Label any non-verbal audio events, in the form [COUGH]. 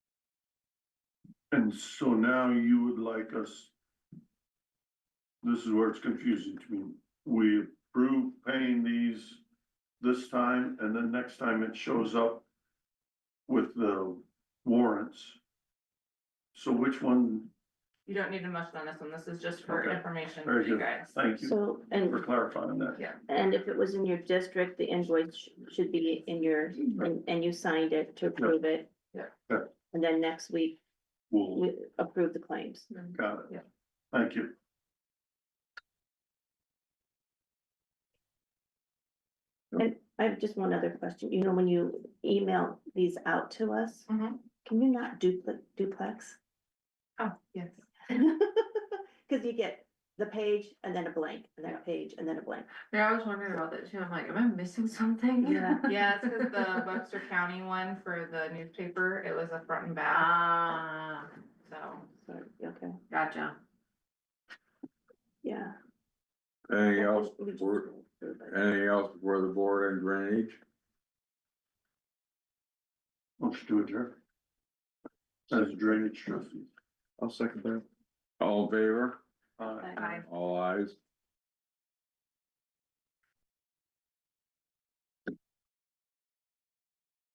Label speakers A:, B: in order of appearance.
A: And so now you would like us. This is where it's confusing to me. We approve paying these this time and then next time it shows up with the warrants. So which one,
B: You don't need to motion on this one, this is just for
A: Okay.
B: information for
A: Very
B: you
A: good.
B: guys.
A: thank you
C: So,
A: for
C: and,
A: clarifying that.
B: Yeah,
C: and if it was in your district, the invoice sh- should be in your, and, and you signed it to approve it.
B: Yeah.
A: Yeah.
C: And then next week,
A: We'll,
C: we approve the claims.
A: got it.
B: Yeah.
A: Thank you.
C: I have just one other question. You know, when you email these out to us,
B: Mhm.
C: can you not dupli- duplex? [LAUGHS]
B: oh, yes.
C: Cause you get the page and then a blank, and then a page and then a blank.
D: Yeah, I was wondering about that too. I'm like, am I missing something?
C: Yeah.
B: Yeah, it's
D: [LAUGHS]
A: [LAUGHS]
B: 'cause the Webster County one for the newspaper, it was a front and back,
D: Ah,
B: so.
C: So, okay,
D: gotcha.
C: yeah.
E: Anything
C: I
E: else,
C: think we just
E: for-
C: do it for everybody.
E: anything else for the board and drainage?
A: Let's do it, Jerry. As drainage trustee.
E: I'll second that. All in favor,
A: Aye.
E: all eyes.